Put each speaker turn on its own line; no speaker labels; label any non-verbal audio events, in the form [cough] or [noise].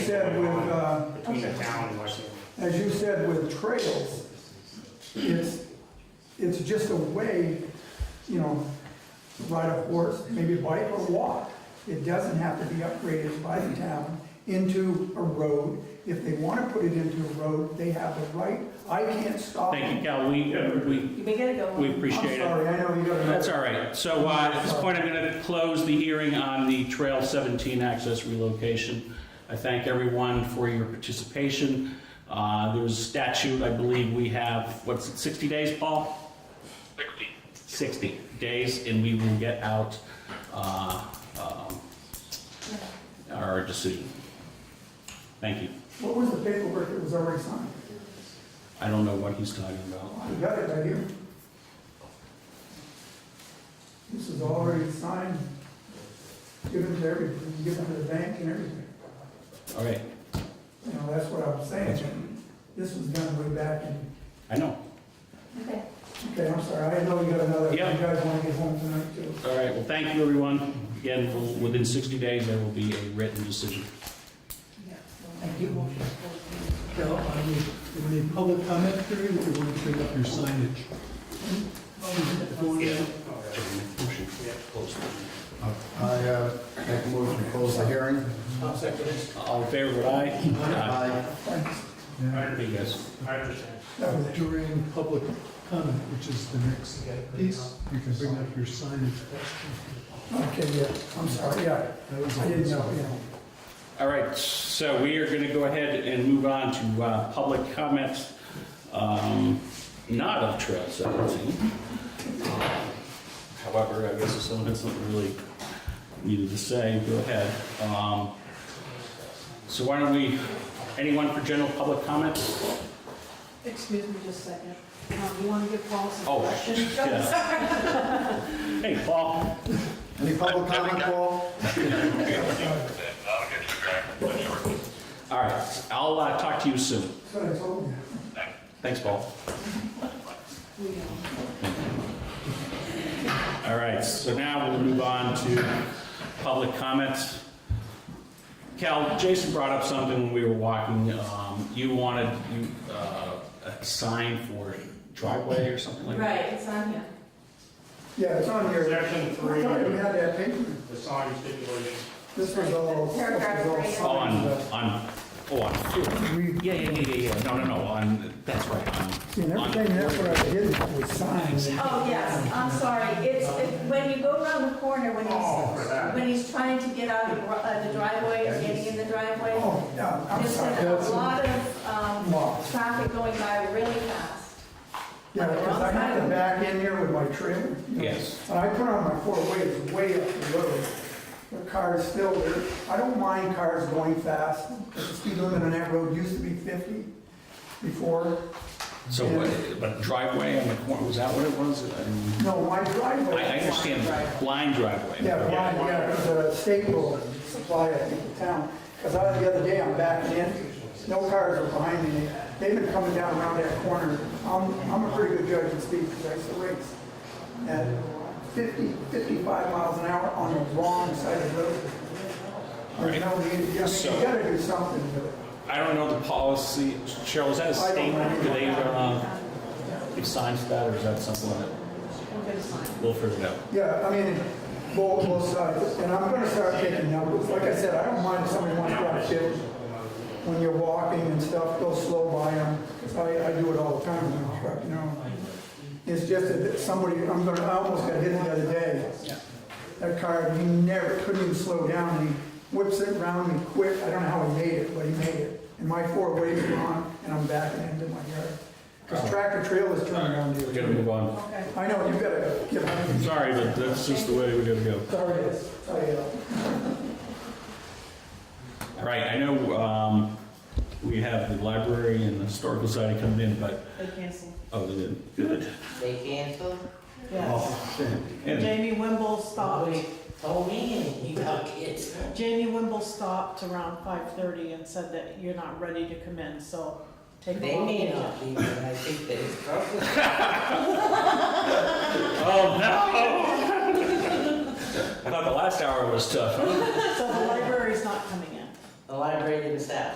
said
going
with,
on
uh,
Between the
okay.
town and Westhaven.
as you said with trails, it's, it's just a way, you know, ride a horse, maybe bike or walk. It doesn't have to be upgraded by the town into a road. If they want to put it into a road, they have the right. I can't stop
Thank you,
them.
Cal, we, uh, we,
You may get it going.
we appreciate
I'm
it.
sorry, I know you got to.
That's all right. So uh, at this point, I'm going to close the hearing on the Trail 17 access relocation. I thank everyone for your participation. Uh, There was a statute, I believe we have, what's it, 60 days, Paul? 60. 60 days, and we will get out uh, um, our decision. Thank you.
What was the paperwork that was already signed?
I don't know what he's talking about.
I got it right here. This is already signed, given to everybody, given to the bank and everything.
All right,
You know, that's what I'm saying. This was done way back in,
I know.
Okay.
okay, I'm sorry, I know we got another, you
Yeah.
guys want to get home tonight too.
All right, well, thank you, everyone. Again, we'll- within 60 days, there will be a written decision.
Thank you. Carol, on the, in the public comment period, if you want to bring up your signage. If you want to-
I uh, make a motion to close the hearing.
Uh, All in favor, vote aye.
Aye.
I
Aye. You guys.
understand.
That was it.
During public comment, which is the next piece, you can bring up your signage.
Okay, yeah, I'm sorry, yeah,
That was
I didn't know, yeah.
All right, so we are going to go ahead and move on to uh, public comments, um, not of Trail 17. Um, However, I guess if someone has something really needed to say, go ahead. Um, So why don't we, anyone for general public comments?
Excuse me just a second. Um, You want to give Paul
Oh,
some
[laughs]
questions?
yeah. Hey, Paul.
Any public comment, Paul?
All right, I'll uh, talk to you soon.
That's what I told you.
Thanks, Paul.
We don't.
All right, so now we'll move on to public comments. Cal, Jason brought up something when we were walking. Um, You wanted you, uh, a sign for driveway or something like that?
Right, it's on here.
Yeah, it's on here.
Section three,
I thought we had that paper.
the sign stipulation.
This was all, this was
Oh,
all
on,
signed. uh,
on, oh, on,
We-
yeah, yeah, yeah, yeah, yeah, no, no, no, on, that's right, on.
See, and
on-
everything, that's what I did, was signed.
Oh, yes, I'm sorry. It's, it- when you go around the corner, when
Oh, for that.
he's, when he's trying to get out of uh, the driveway or getting in the driveway,
Oh, yeah, I'm
there's
sorry.
been a
That's-
lot of um,
Lots.
traffic going by really fast.
Yeah, because I had to back in here with my trailer. you know.
Yes.
And I put on my four-way, it's way up the road. The car's still there. I don't mind cars going fast, 'cause the speed limit on that road used to be 50 before.
So, what- but driveway on the corner, was that what it was? I-
No, my driveway.
I understand, blind driveway.
Yeah, Brian, yeah, because the state will supply it to the town. Because I, the other day, I'm backing in, no cars are behind me. They've been coming down around that corner. I'm, I'm a pretty good judge of speed because I used to race. At 50, 55 miles an hour on the wrong side of the road. I know, you, you
So-
gotta do something with it.
I don't know the policy. Cheryl, is that a
I don't
statement?
know.
Do they, um, give signs to that, or is that something that we'll figure it out?
Yeah, I mean, both, both sides, and I'm gonna start taking numbers, like I said, I don't mind if somebody wants to drop chips. When you're walking and stuff, go slow by them, 'cause I, I do it all the time in my truck, you know? It's just that somebody, I'm gonna, I almost got hit the other day. That car, he never, couldn't even slow down, and he whips it around me quick, I don't know how he made it, but he made it. And my four ways were on, and I'm backing into my yard, 'cause tractor trailers turn around
We
here.
gotta move on.
I know, you gotta give
I'm sorry, but that's just the way we gotta go.
Sorry, it's, I, uh,
All right, I know, um, we have the library and the historical society coming in, but,
They canceled.
oh, they didn't. Good.
They canceled?
Yes.
And
Jamie Wimble stopped,
Oh, man, you got kids.
Jamie Wimble stopped around 5:30 and said that you're not ready to come in, so take a
They
walk.
may not be, but I think that it's probably.
Oh, no! [laughs] I thought the last hour was tough.
So the library's not coming in.
the library themselves.